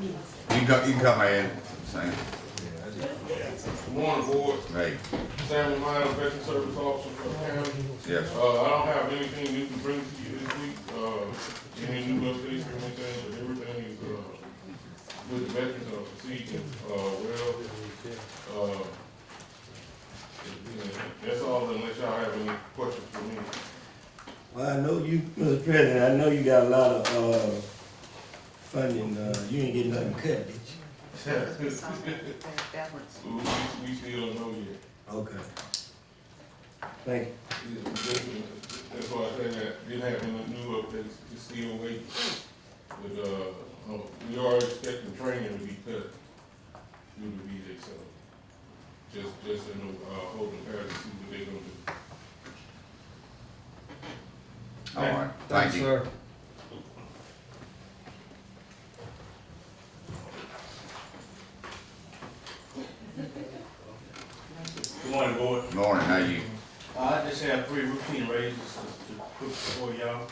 can cut, you can cut my head, same, Warren Ward, hey, Samuel Miles, Veteran Service Officer for the county. yes, Uh, I don't have anything new to bring to you this week, uh, any new updates or anything, but everything is, uh, with the veterans are proceeding, uh, well. Uh, That's all unless y'all have any questions for me. Well, I know you, Mr. President, I know you got a lot of, uh, funding, uh, you ain't getting nothing cut, did you? Backwards. We, we- we still don't know yet. Okay. Thank you. That's why I said that, didn't have any new updates, just still waiting. But, uh, no, we are expecting training to be cut due to VA, so just, just in the, uh, holding pattern, to see what they gonna do. all right, thank you. sir. Good morning, board. Morning, how you? Uh, I just have three routine raises to to put before y'all.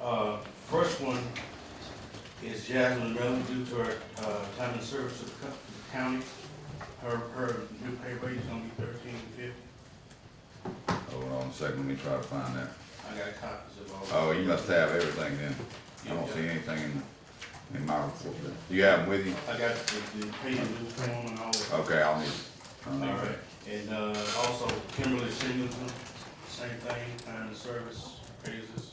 Uh, First one is Jasmine Miller due to her uh, time in service to the co- to the county. Her, her new pay rate is gonna be thirteen fifty. Hold on a second, let me try to find that. I got copies of all. Oh, you must have everything then. I don't see anything in, in my report. there. You have them with you? I got the the pay and due form and all that. Okay, I'll need. All I'll need right, it. and uh, also Kimberly Singleton, same thing, time in service raises.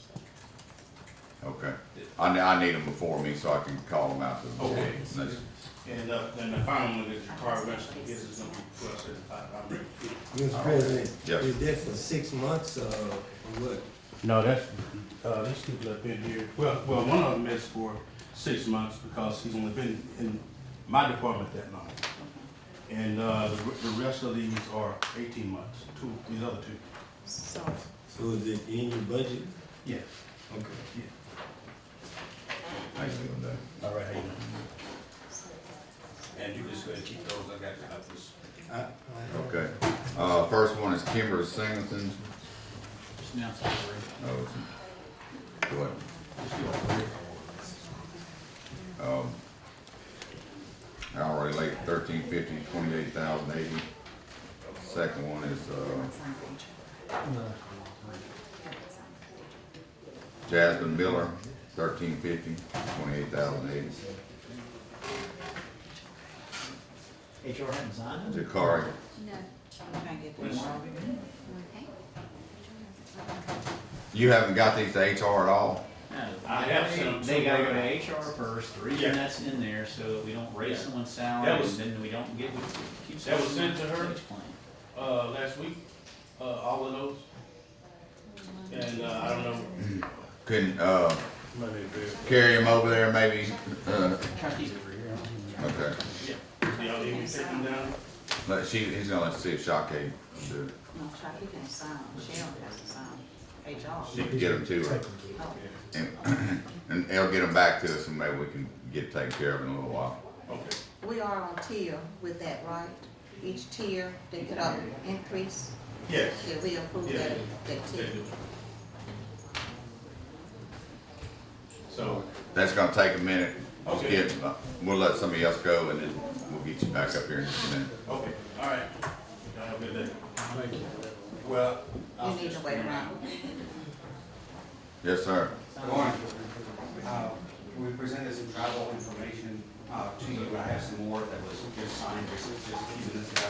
Okay. I, ne- I need them before me so I can call them out to the board. Okay. That's- And uh, then the final one is your car rental, this is gonna be twelve seventy-five, I'm ready. Mr. President, Yes. is that for six months, uh, or what? No, that's, uh, this dude up in here, well, well, one of them is for six months because he's only been in my department that long. And, uh, the, re- the rest of these are eighteen months, two, these other two. So, So is it in your budget? Yeah. Okay. How you doing, Dave? All right, how you doing? And you just gonna keep those, I got copies. I, I, Okay. Uh, first one is Kimber Singleton. Now, Oh, it's, what? Um, hourly rate thirteen fifty, twenty-eight thousand eighty. Second one is, uh, Jasmine Miller, thirteen fifty, twenty-eight thousand eighty. HR Hanson. Jakari, no. I'm trying to get Yes. more. Okay. you haven't got these to HR at all? I have some- They gotta go to HR first, the Yeah. reason that's in there, so that we don't raise Yeah. someone's That salary, and was- then we don't get, we keep. That was someone sent to her? wage claim. uh, last week, uh, all of those. And, uh, I don't know. Couldn't, uh, carry them over there maybe, uh, Try to keep it over here. okay. Do y'all need me to take them down? But she, he's gonna let us see if Shaka can do it. No, try to get some, Cheryl has some, She HR. can get them to her. Oh, And, and they'll get them back to us and maybe we can get taken care of in a little while. Okay. We are on tier with that, right? Each tier, they get an increase, Yes. yeah, we approve Yeah. that, that they tier. do. So, That's gonna take a minute. We'll Okay. get, uh, we'll let somebody else go and then we'll get you back up here in just a minute. okay, all right. Y'all have a good day. Well. You need to wait around. Yes, sir. Lauren, uh, we presented some travel information uh, to you, I have some more that was just signed just just a few minutes ago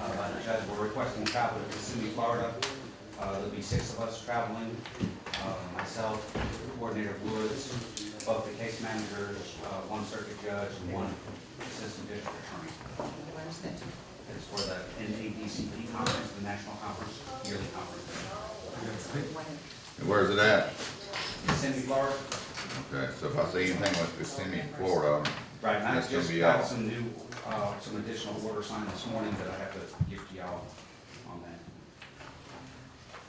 uh, by the judge, we're requesting travel to Kissimmee, Florida. Uh, There'll be six of us traveling, uh, myself, Coordinator Woods, both the case managers, uh, one circuit judge, and one assistant district attorney. Where's that? It's for the NADCP conference, the national conference, yearly conference. Where- And where's it at? Kissimmee, Florida, Okay, so if I see anything with Kissimmee, Florida, Right, and I That's gonna just be got out. some new, uh, some additional order signed this morning that I have to give to y'all on that.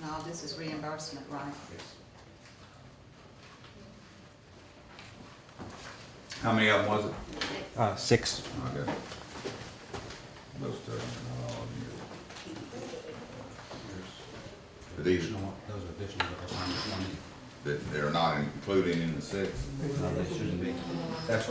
No, this is reimbursement, right? Yes. how many of them was it? Uh, six. Okay. Those two, not all of you. But these, Additional, those are additional that I signed this morning. that they're not included in the six? No, they shouldn't be. That's